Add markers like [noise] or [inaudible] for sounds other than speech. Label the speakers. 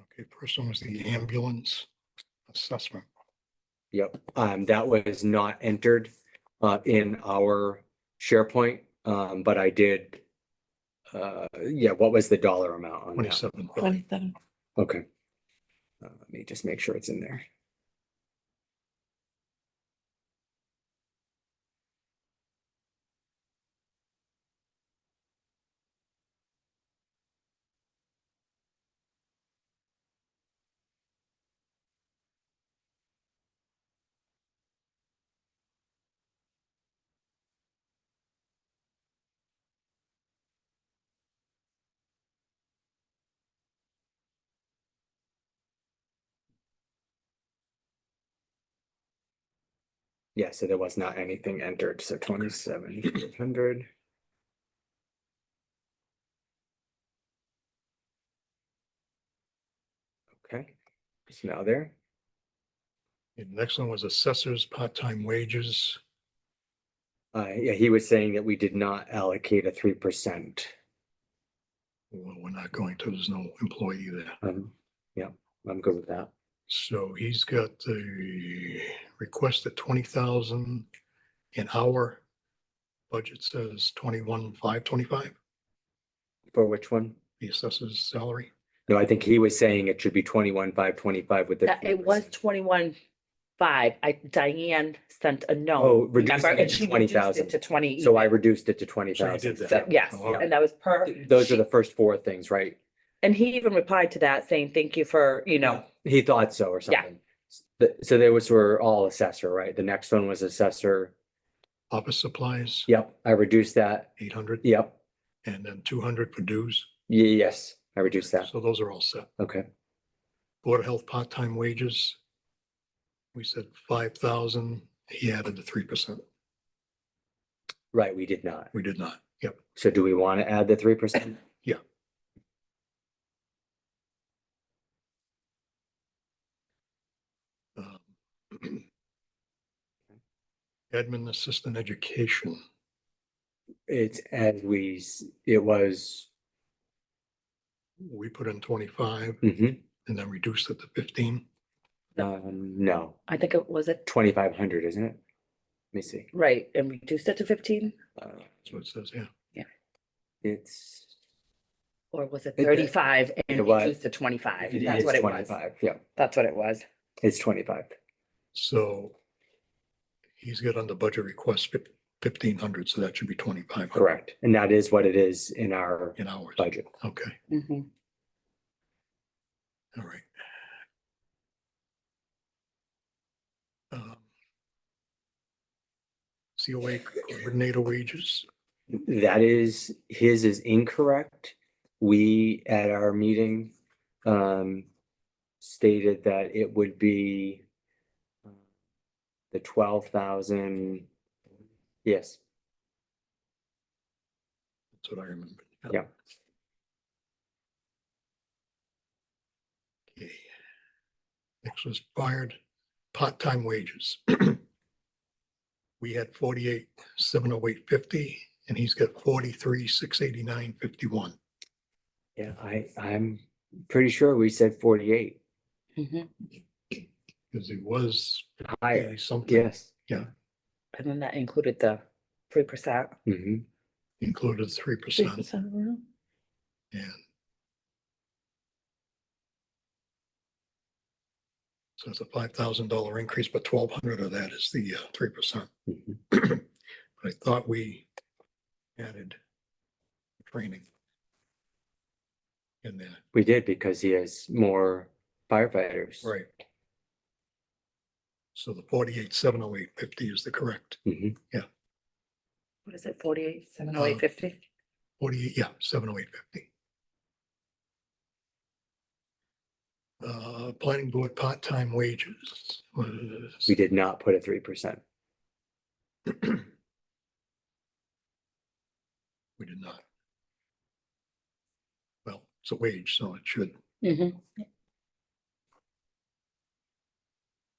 Speaker 1: Okay, first one was the ambulance assessment.
Speaker 2: Yep, um, that was not entered, uh, in our SharePoint, um, but I did. Uh, yeah, what was the dollar amount on that?
Speaker 1: Twenty-seven.
Speaker 3: Twenty-seven.
Speaker 2: Okay. Uh, let me just make sure it's in there. Yeah, so there was not anything entered, so twenty-seven hundred. Okay, it's now there.
Speaker 1: The next one was assessors, part-time wages.
Speaker 2: Uh, yeah, he was saying that we did not allocate a three percent.
Speaker 1: Well, we're not going to, there's no employee there.
Speaker 2: Um, yeah, I'm good with that.
Speaker 1: So he's got the request at twenty thousand an hour. Budget says twenty-one, five twenty-five,
Speaker 2: For which one?
Speaker 1: the assessor's salary.
Speaker 2: No, I think he was saying it should be twenty-one, five, twenty-five with the.
Speaker 3: That- It was
Speaker 2: 3%.
Speaker 3: twenty-one five. I, Diane sent a
Speaker 2: Oh,
Speaker 3: note.
Speaker 2: reducing
Speaker 3: remember,
Speaker 2: it
Speaker 3: and
Speaker 2: to
Speaker 3: she reduced
Speaker 2: twenty
Speaker 3: it
Speaker 2: thousand.
Speaker 3: To twenty.
Speaker 2: So I reduced it to twenty
Speaker 1: So you
Speaker 2: thousand.
Speaker 1: did that.
Speaker 3: So, Yes,
Speaker 1: Oh, okay.
Speaker 3: and that was per.
Speaker 2: Those are
Speaker 3: she-
Speaker 2: the first four things, right?
Speaker 3: And he even replied to that saying, thank you for, you know,
Speaker 2: He thought so or
Speaker 3: Yeah.
Speaker 2: something. S- the- so they was were all assessor, right? The next one was assessor.
Speaker 1: Office supplies,
Speaker 2: Yep, I reduced that.
Speaker 1: eight hundred,
Speaker 2: Yep,
Speaker 1: and then two hundred for dues.
Speaker 2: Ye- yes, I reduced that.
Speaker 1: So those are all set.
Speaker 2: Okay,
Speaker 1: Board of Health part-time wages. We said five thousand, he added the three percent.
Speaker 2: right, we did not.
Speaker 1: We did not. [clears throat] Yep,
Speaker 2: So do we want to add the three
Speaker 3: [coughs]
Speaker 2: percent?
Speaker 1: Yeah. um, Admin assistant education.
Speaker 2: It's as we, s- it was.
Speaker 1: We put in twenty-five
Speaker 2: mhm,
Speaker 1: and then reduced it to fifteen.
Speaker 2: um, no,
Speaker 3: I think it was it,
Speaker 2: twenty-five hundred, isn't it? Let me see.
Speaker 3: right, and reduced it to fifteen?
Speaker 2: Uh,
Speaker 1: So it says, yeah,
Speaker 2: It's.
Speaker 3: Or was it
Speaker 2: It-
Speaker 3: thirty-five
Speaker 2: it
Speaker 3: and
Speaker 2: was-
Speaker 3: reduced to twenty-five?
Speaker 2: it
Speaker 3: That's
Speaker 2: is
Speaker 3: what it was.
Speaker 2: 25, Yeah,
Speaker 3: That's what it was.
Speaker 2: it's twenty-five.
Speaker 1: so he's got on the budget request fifteen hundred, so that should be twenty-five.
Speaker 2: Correct. And that is what it is in our
Speaker 1: In hours.
Speaker 2: budget.
Speaker 1: Okay,
Speaker 3: Mhm.
Speaker 1: all right. Um, COA coordinator wages,
Speaker 2: That is, his is incorrect. We, at our meeting, um, stated that it would be uh, the twelve thousand, yes,
Speaker 1: that's what I remember.
Speaker 2: Yeah.
Speaker 1: Okay. Next was fired, part-time wages. We had forty-eight, seven oh eight fifty, and he's got forty-three, six eighty-nine, fifty-one.
Speaker 2: yeah, I, I'm pretty sure we said forty-eight.
Speaker 3: Mhm.
Speaker 1: Because it was
Speaker 2: Higher,
Speaker 1: really something
Speaker 2: yes.
Speaker 3: And then that included the three percent.
Speaker 2: Mhm.
Speaker 1: included three percent and. So it's a five thousand dollar increase, but twelve hundred of that is the uh, three percent. [clears throat]
Speaker 2: Mhm.
Speaker 1: But I thought we added training. In there,
Speaker 2: We did because he has more firefighters.
Speaker 1: right? So the forty-eight, seven oh eight fifty is the correct,
Speaker 2: Mhm.
Speaker 3: What is it, forty-eight, seven oh
Speaker 2: Uh-huh.
Speaker 3: eight
Speaker 1: Uh,
Speaker 3: fifty?
Speaker 1: forty-eight, yeah, seven oh eight fifty. Uh, planning board part-time wages was.
Speaker 2: We did not put a three percent.
Speaker 1: [clears throat] We did not. Well, it's a wage, so it should,
Speaker 3: Mhm.